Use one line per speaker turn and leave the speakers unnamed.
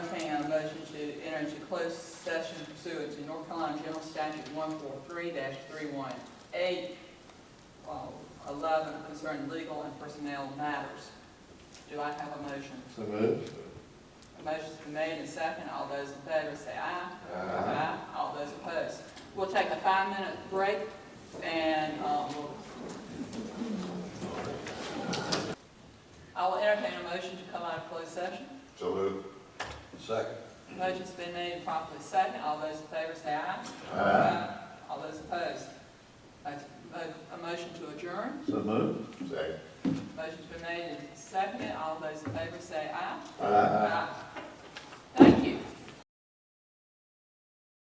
to enter into closed session pursuant to North Carolina General Statute one four three three one eight, uh, eleven concerning legal and personnel matters. Do I have a motion?
So moved.
A motion's been made and second. All those in favor say aye.
Aye.
All those opposed. We'll take a five-minute break and, um, we'll- I will entertain a motion to come out of closed session.
So moved. Second.
Motion's been made and properly second. All those in favor say aye. All those opposed. A a motion to adjourn.
So moved. Second.
Motion's been made and seconded. All those in favor say aye.
Aye.